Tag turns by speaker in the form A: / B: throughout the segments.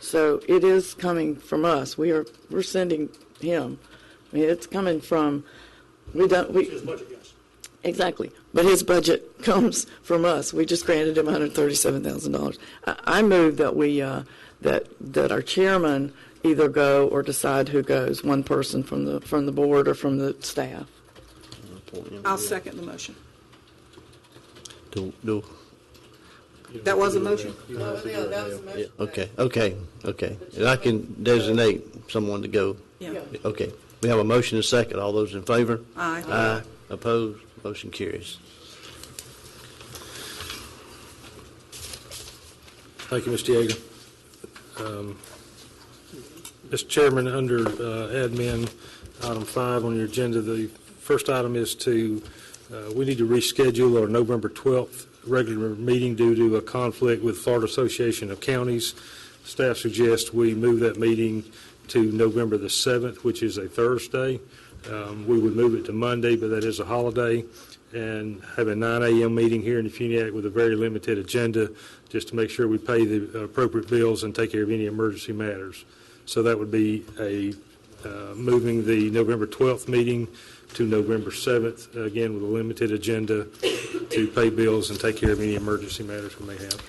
A: So it is coming from us. We are, we're sending him. I mean, it's coming from, we don't, we,
B: His budget, yes.
A: Exactly. But his budget comes from us. We just granted him $137,000. I- I move that we, uh, that, that our chairman either go or decide who goes, one person from the, from the board or from the staff.
C: I'll second the motion.
D: Do, do,
C: That was a motion?
D: yeah, okay, okay, okay. And I can designate someone to go.
C: Yeah.
D: Okay, we have a motion and a second. All those in favor?
C: Aye.
D: Aye. Opposed? Motion carries.
B: Thank you, Mr. Yeager. Um, Mr. Chairman, under uh, admin, item five on your agenda, the first item is to, uh, we need to reschedule our November 12th regular meeting due to a conflict with Florida Association of Counties. Staff suggests we move that meeting to November the 7th, which is a Thursday. Um, We would move it to Monday, but that is a holiday, and have a 9 a.m. meeting here in Funiac with a very limited agenda, just to make sure we pay the appropriate bills and take care of any emergency matters. So that would be a, uh, moving the November 12th meeting to November 7th, again, with a limited agenda to pay bills and take care of any emergency matters we may have.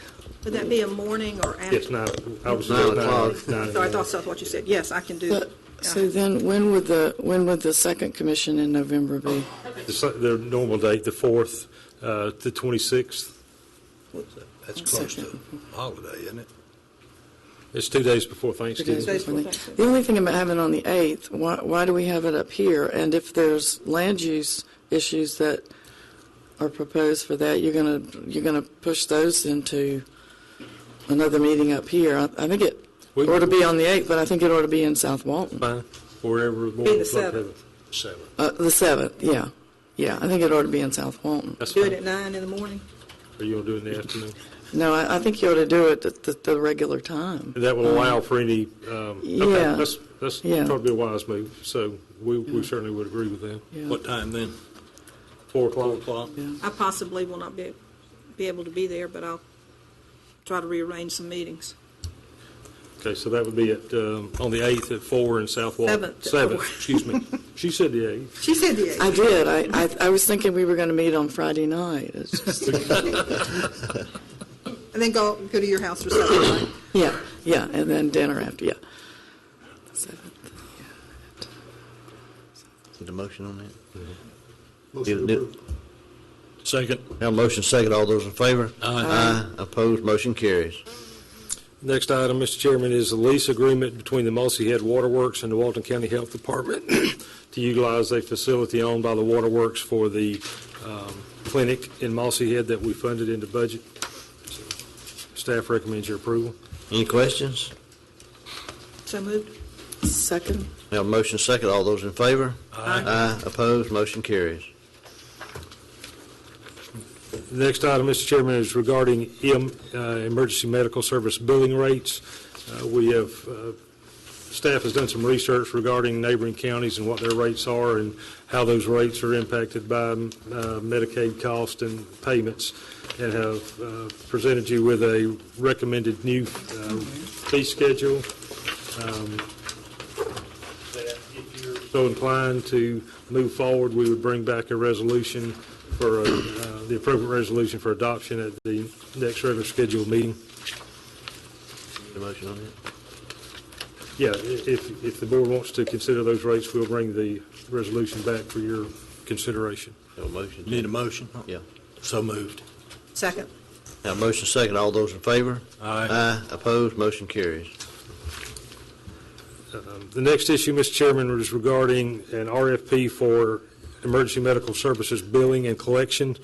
C: Would that be a morning or after?
B: Yes, now, I was.
D: Nine o'clock.
B: Nine
C: So I
B: a.m.
C: thought that's what you said. Yes, I can do
A: But-
C: it.
A: So then, when would the, when would the second commission in November be?
B: The su- The normal date, the 4th, uh, the 26th.
E: That's close to holiday, isn't it?
B: It's two days before
A: Two
B: Thanksgiving.
A: days
C: Days
A: before
C: before
A: that. The only thing about having it on the 8th, why, why do we have it up here? And if there's land use issues that are proposed for that, you're going to, you're going to push those into another meeting up here. I I think it
B: We-
A: ought to be on the 8th, but I think it ought to be in South Walton.
B: Fine, wherever. Be
C: the seventh.
E: Seven.
A: Uh, The 7th, yeah. Yeah, I think it ought to be in South Walton.
B: That's
C: Do it
B: fine.
C: at nine in the morning?
B: Or you want to do it in the afternoon?
A: No, I, I think you ought to do it at the, the regular time.
B: That will allow for any, um, okay,
A: yeah.
B: that's, that's
A: Yeah.
B: probably a wise move, so we, we certainly would agree with that.
A: Yeah.
E: What time then?
B: Four o'clock,
E: O'clock?
C: I possibly will not be, be able to be there, but I'll try to rearrange some meetings.
B: okay, so that would be at, um, on the eighth at four in South Walton.
C: Seventh at
B: Seventh,
C: four.
B: excuse me, she said the eighth.
C: She said the
A: I
C: eighth.
A: did. I, I, I was thinking we were going to meet on Friday night. It's just,
C: And then go, go to your house for supper, right?
A: yeah, yeah, and then dinner after, yeah.
D: Is the motion on that?
E: Mm-hmm.
D: Do-
E: Motion to
D: do-
E: approve. Second.
D: Have a motion second. All those in favor?
E: Aye.
D: Aye. Opposed? Motion carries.
B: Next item, Mr. Chairman, is the lease agreement between the Mossy Head Waterworks and the Walton County Health Department to utilize a facility owned by the Waterworks for the um, clinic in Mossy Head that we funded into budget. Staff recommends your approval.
D: Any questions?
C: So moved.
A: Second?
D: We have a motion second. All those in favor?
C: Aye.
D: Aye. Opposed? Motion carries.
B: The next item, Mr. Chairman, is regarding em- uh, emergency medical service billing rates. Uh, We have, uh, staff has done some research regarding neighboring counties and what their rates are and how those rates are impacted by um, uh, Medicaid cost and payments, and have uh, presented you with a recommended new uh, fee schedule. Um, that If you're so inclined to move forward, we would bring back a resolution for, uh, uh, the appropriate resolution for adoption at the next regular scheduled meeting.
D: The motion on that?
B: Yeah, i- if, if the board wants to consider those rates, we'll bring the resolution back for your consideration.
D: Have a motion?
E: Need a motion?
D: Yeah.
E: So moved.
C: Second.
D: Have a motion second. All those in favor?
E: Aye.
D: Aye. Opposed? Motion carries.
B: The next issue, Mr. Chairman, is regarding an RFP for emergency medical services billing and collection.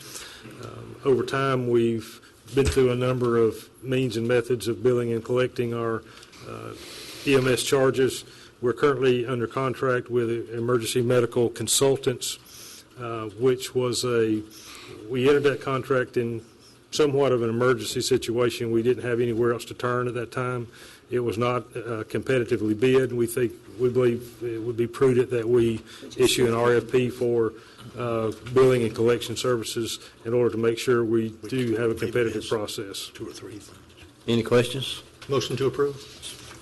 B: Um, Over time, we've been through a number of means and methods of billing and collecting our uh, EMS charges. We're currently under contract with Emergency Medical Consultants, uh, which was a, we entered that contract in somewhat of an emergency situation. We didn't have anywhere else to turn at that time. It was not uh, competitively bid. We think, we believe it would be prudent that we issue an RFP for uh, billing and collection services in order to make sure we do have a competitive process.
E: Two or three things.
D: Any questions?
E: Motion to approve?